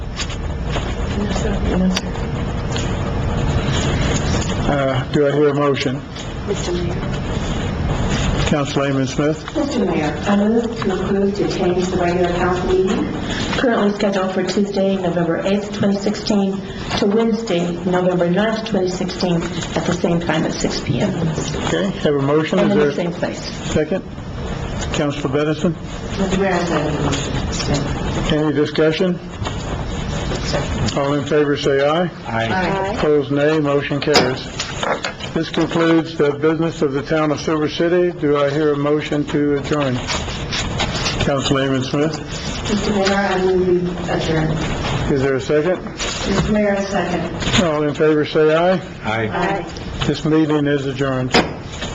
Uh, Do I hear a motion? Mr. Mayor. Councilwoman Smith? Mr. Mayor, I move to approve to change the regular council meeting currently scheduled for Tuesday, November 8th, 2016, to Wednesday, November 9th, 2016, at the same time at 6 PM, Okay, have a motion, and in the is there same place. a second? Councilor Benison, Mr. Mayor, I second the motion. any discussion? All in favor, say aye. Opposed, nay. Motion carries. This concludes the business of the town of Silver City. Do I hear a motion to adjourn? Councilwoman Smith, Mr. Mayor, I move we adjourn. is there a second? Mr. Mayor, I second. All in favor, say aye. Aye. Aye. This meeting is adjourned.